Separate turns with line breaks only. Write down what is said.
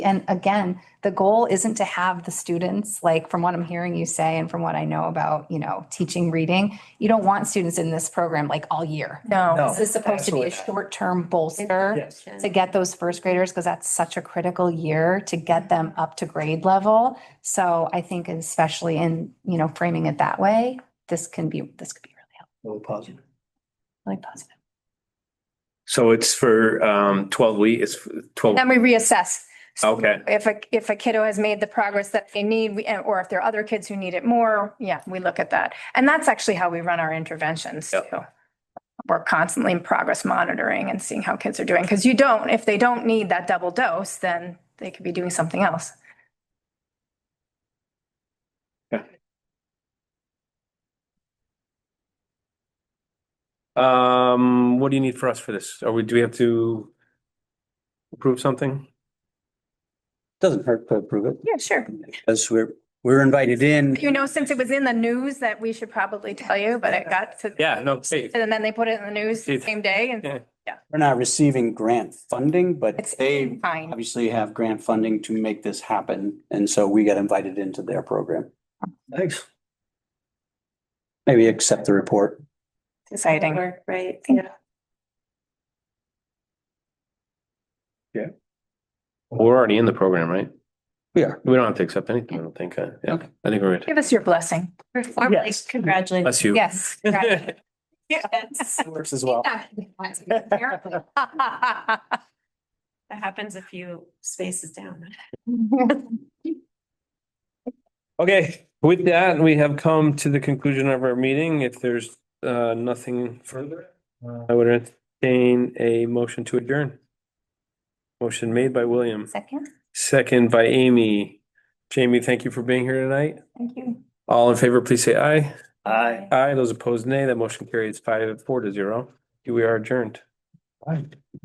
And again, the goal isn't to have the students, like from what I'm hearing you say and from what I know about, you know, teaching reading, you don't want students in this program like all year.
No.
This is supposed to be a
Absolutely.
short-term bolster
Yes.
to get those first graders, because that's such a critical year to get them up to grade level. So I think especially in, you know, framing it that way, this can be, this could be really helpful,
Really positive.
really positive.
So it's for um twelve week, it's twelve,
Then we reassess. So
Okay.
If a, if a kiddo has made the progress that they need, we- and- or if there are other kids who need it more, yeah, we look at that. And that's actually how we run our interventions too.
Yep.
We're constantly in progress monitoring and seeing how kids are doing, because you don't, if they don't need that double dose, then they could be doing something else.
um, what do you need for us for this? Are we, do we have to approve something?
Doesn't hurt to approve it
Yeah, sure.
because we're, we're invited in.
You know, since it was in the news that we should probably tell you, but it got to.
Yeah, no, hey,
And then they put it in the news the
It's-
same day and
yeah.
We're not receiving grant funding, but
it's
they
fine.
obviously have grant funding to make this happen. And so we got invited into their program.
Thanks.
Maybe accept the report.
Exciting.
Work, Right,
Yeah.
yeah.
we're already in the program, right?
We are.
We don't have to accept anything, I don't think. uh, Yeah,
Okay.
I think we're good.
Give us your blessing.
Formally,
Yes.
congratulations.
Bless you.
Yes.
That
Works as well.
happens a few spaces down.
Okay, with that, we have come to the conclusion of our meeting. If there's uh nothing further, uh, I would entertain a motion to adjourn. Motion made by William,
Second,
second by Amy. Jamie, thank you for being here tonight.
thank you.
All in favor, please say aye.
Aye.
Aye, those opposed nay. That motion carries five, four to zero. We are adjourned.